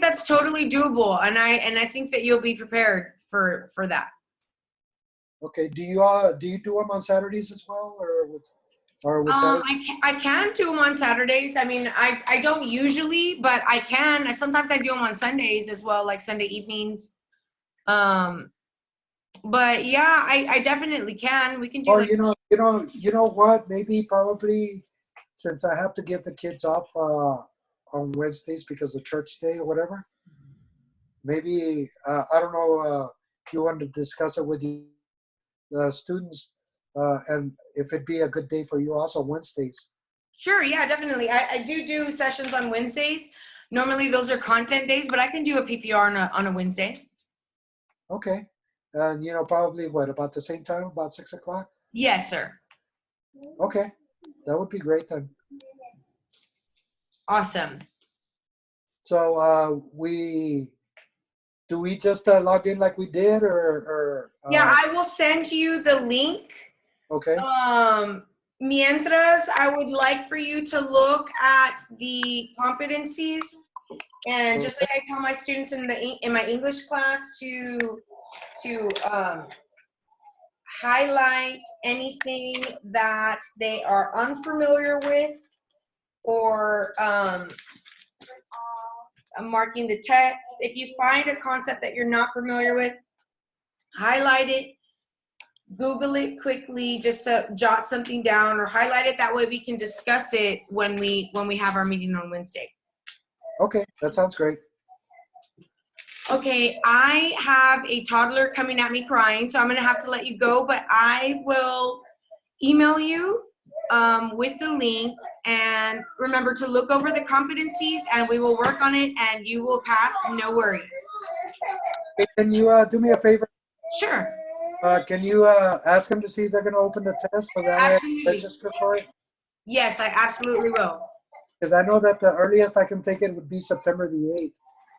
that's totally doable, and I and I think that you'll be prepared for for that. Okay, do you, uh, do you do them on Saturdays as well, or with, or with Um, Saturday? I can, I can do them on Saturdays. I mean, I I don't usually, but I can. I- Sometimes I do them on Sundays as well, like Sunday evenings. Um, but yeah, I I definitely can. We can do. Or, like- you know, you know, you know what, maybe probably, since I have to give the kids off, uh, on Wednesdays because of church day or whatever. Maybe, uh, I don't know, uh, if you want to discuss it with the, uh, students, uh, and if it'd be a good day for you also Wednesdays. Sure, yeah, definitely. I, I do do sessions on Wednesdays. Normally those are content days, but I can do a PPR on a, on a Wednesday. Okay, and you know, probably what, about the same time, about six o'clock? Yes, sir. Okay, that would be great then. Awesome. So uh, we, do we just uh, log in like we did or? or Yeah, I will send you the link. I. Okay, Um, mientras, I would like for you to look at the competencies. And just like I tell my students in the, Eng- in my English class to, to, um, highlight anything that they are unfamiliar with or, um, I'm marking the text. If you find a concept that you're not familiar with, highlight it Google it quickly, just to jot something down or highlight it. That way we can discuss it when we, when we have our meeting on Wednesday. okay, that sounds great. Okay, I have a toddler coming at me crying, so I'm gonna have to let you go, but I will email you um, with the link. And remember to look over the competencies and we will work on it and you will pass, no worries. Hey, Can you uh, do me a favor? Sure, Uh, Can you uh, ask them to see if they're going to open the test so that I Absolutely. register for it? yes, I absolutely will. Because I know that the earliest I can take it would be September the 8th.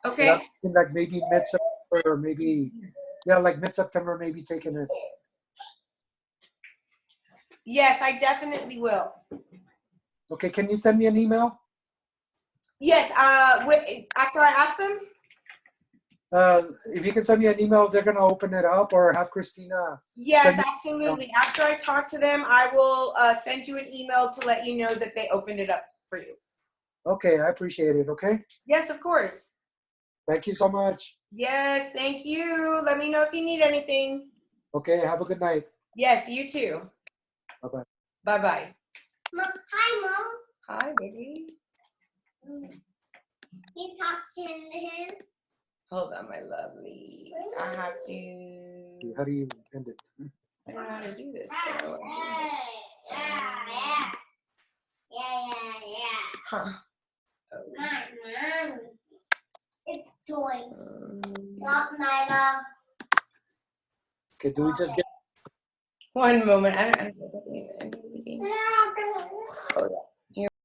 And Okay, I'm thinking, Like maybe mid-September or maybe, yeah, like mid-September, maybe taking it. yes, I definitely will. Okay, can you send me an email? Yes, uh, wi- after I ask them? Uh, If you can send me an email, if they're going to open it up or have Christina Yes, Send- absolutely. After I talk to them, I will uh, send you an email to let you know that they opened it up for you. Okay, I appreciate it. Okay, Yes, of course. thank you so much. Yes, thank you. Let me know if you need anything. Okay, have a good night. Yes, you too. Bye-bye. Bye bye. Mom, hi, Hi, baby. Mom. You talking to him? Hold on, my lovely. I have to. How do you end it? I don't know how to do this. Yeah, so- yeah, yeah. Yeah, yeah, yeah. Huh. Mom, mom. It's toys. Um, Not my love. Okay, do we just get One moment. I don't, I don't know. Yeah, Oh,